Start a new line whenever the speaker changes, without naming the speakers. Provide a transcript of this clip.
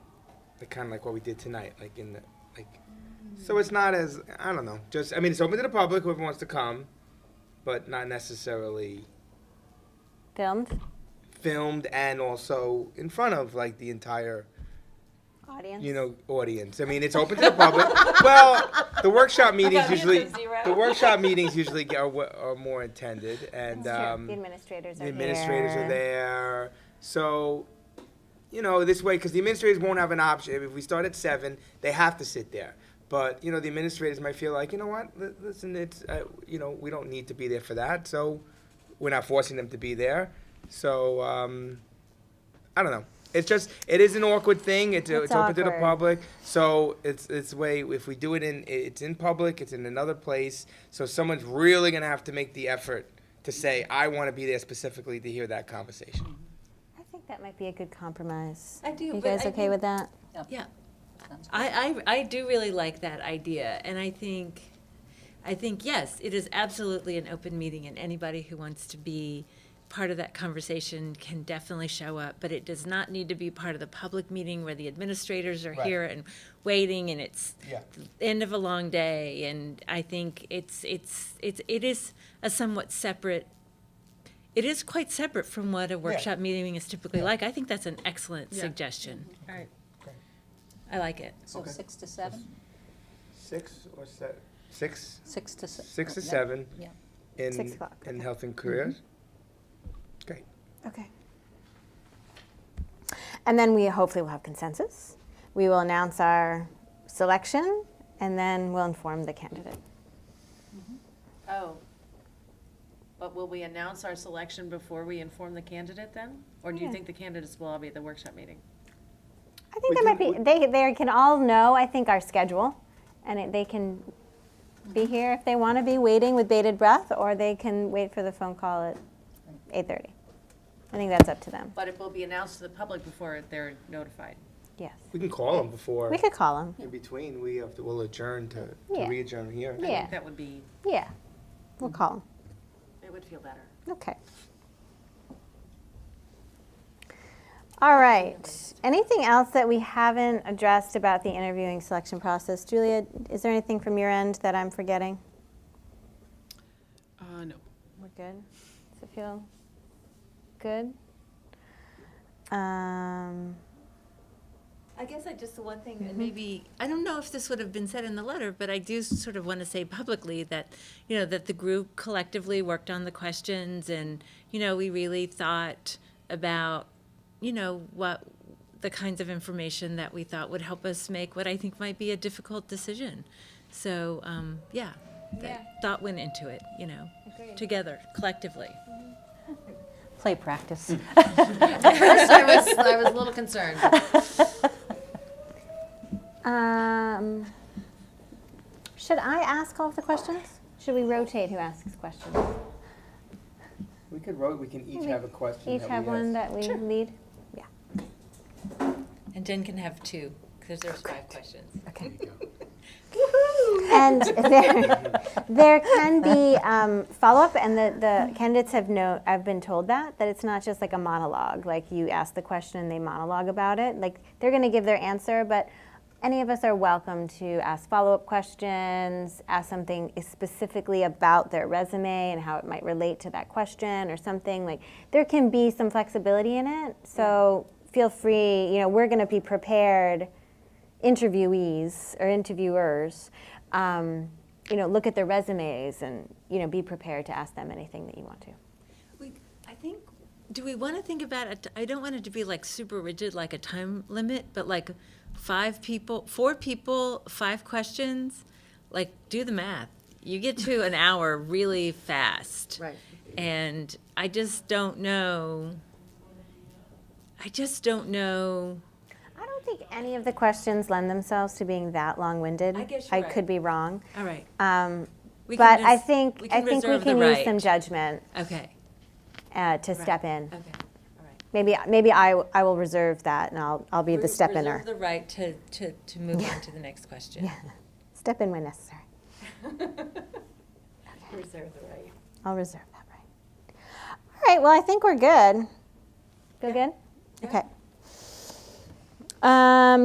like kind of like what we did tonight, like in the, like, so it's not as, I don't know, just, I mean, it's open to the public, whoever wants to come, but not necessarily
Filmed,
filmed and also in front of like the entire,
audience.
you know, audience. I mean, it's open to the public. well, the workshop meetings
Audience
usually,
of zero.
the workshop meetings usually get- are, wa- are more intended and,
That's true.
um,
the administrators are
the administrators are there. So, you know, this way, because the administrators won't have an option. If we start at seven, they have to sit there. But you know, the administrators might feel like, you know what? li- Listen, it's uh, you know, we don't need to be there for that. So, we're not forcing them to be there. So, um, I don't know. It's just it is an awkward thing. It's, it's,
It's
open to the
awkward.
public. So it's it's way if we do it in it's in public. It's in another place. So someone's really gonna have to make the effort to say I want to be there specifically to hear that conversation.
I think that might be a good compromise.
I do,
You
but
guys
I
okay
think-
with that?
Yeah,
Sounds good.
I, I, I do really like that idea, and I think, I think, yes, it is absolutely an open meeting, and anybody who wants to be part of that conversation can definitely show up, but it does not need to be part of the public meeting where the administrators are
Right.
here and waiting, and it's
Yeah.
the end of a long day, and I think it's, it's, it's, it is a somewhat separate, it is quite separate from what a workshop meeting is typically like. I think that's an excellent
Yeah.
suggestion.
All right.
I like it.
So six to seven,
Six or seven. Six.
six to se-
Six to
yeah.
seven.
Yeah.
In
Oh, Six o'clock,
in
okay. Mm-hmm.
health and careers. Great.
Okay. And then we hopefully will have consensus. We will announce our selection and then we'll inform the candidate.
Oh. But will we announce our selection before we inform the candidate then? Or do you
Yeah.
think the candidates will all be at the workshop meeting?
I think
We
that
do-
might be,
we-
they, they can all know, I think, our schedule and it, they can be here if they want to be waiting with bated breath or they can wait for the phone call at 8.30. I think that's up to them.
But it will be announced to the public before they're notified.
Yes.
We can call them before.
We could call them.
in between, we have to, we'll adjourn to, to
Yeah.
re-adjourn here.
I think
Yeah.
That would be,
Yeah. We'll call them.
it would feel better.
Okay. All right. Anything else that we haven't addressed about the interviewing selection process? Julia, is there anything from your end that I'm forgetting?
Uh, no.
We're good. Does it feel good? Um,
I guess I just, the one thing,
Mm-hmm.
that maybe, I don't know if this would have been said in the letter, but I do sort of want to say publicly that, you know, that the group collectively worked on the questions and, you know, we really thought about, you know, what, the kinds of information that we thought would help us make what I think might be a difficult decision. So, um, yeah, that thought went into it, you know, together, collectively.
Play practice.
I was, I was a little concerned.
um, should I ask all of the questions? Should we rotate who asks questions?
We could vote, we can each
We
have a question.
Each
that we
have one
ask.
that we lead?
And Jen can have two, because there's five questions.
Okay.
There you
And there, there can be um, follow-up, and the, the candidates have no, I've been told that, that it's not just like a monologue, like you ask the question and they monologue about it. Like, they're gonna give their answer, but any of us are welcome to ask follow-up questions, ask something specifically about their resume and how it might relate to that question or something. Like, there can be some flexibility in it, so feel free, you know, we're gonna be prepared interviewees or interviewers, um, you know, look at their resumes and you know, be prepared to ask them anything that you want to.
We, I think, do we want to think about it? I don't want it to be like super rigid, like a time limit, but like five people, four people, five questions. Like, do the math. You get to an hour really fast.
Right.
And I just don't know. I just don't know.
I don't think any of the questions lend themselves to being that long-winded.
I guess
I
you're right.
could be wrong,
All right.
um,
We
but
can
I
res-
think
we
I
can
think we
reserve the
can use
right.
some judgment
Okay.
uh, to step in.
Okay.
Maybe maybe I, I will reserve that and I'll I'll be the
Res-
step
reserve
inner.
The right to, to, to move on to the next question.
Step in when necessary.
Reserve the right.
I'll reserve that right. All right, well, I think we're good. Feel good? Okay. Um,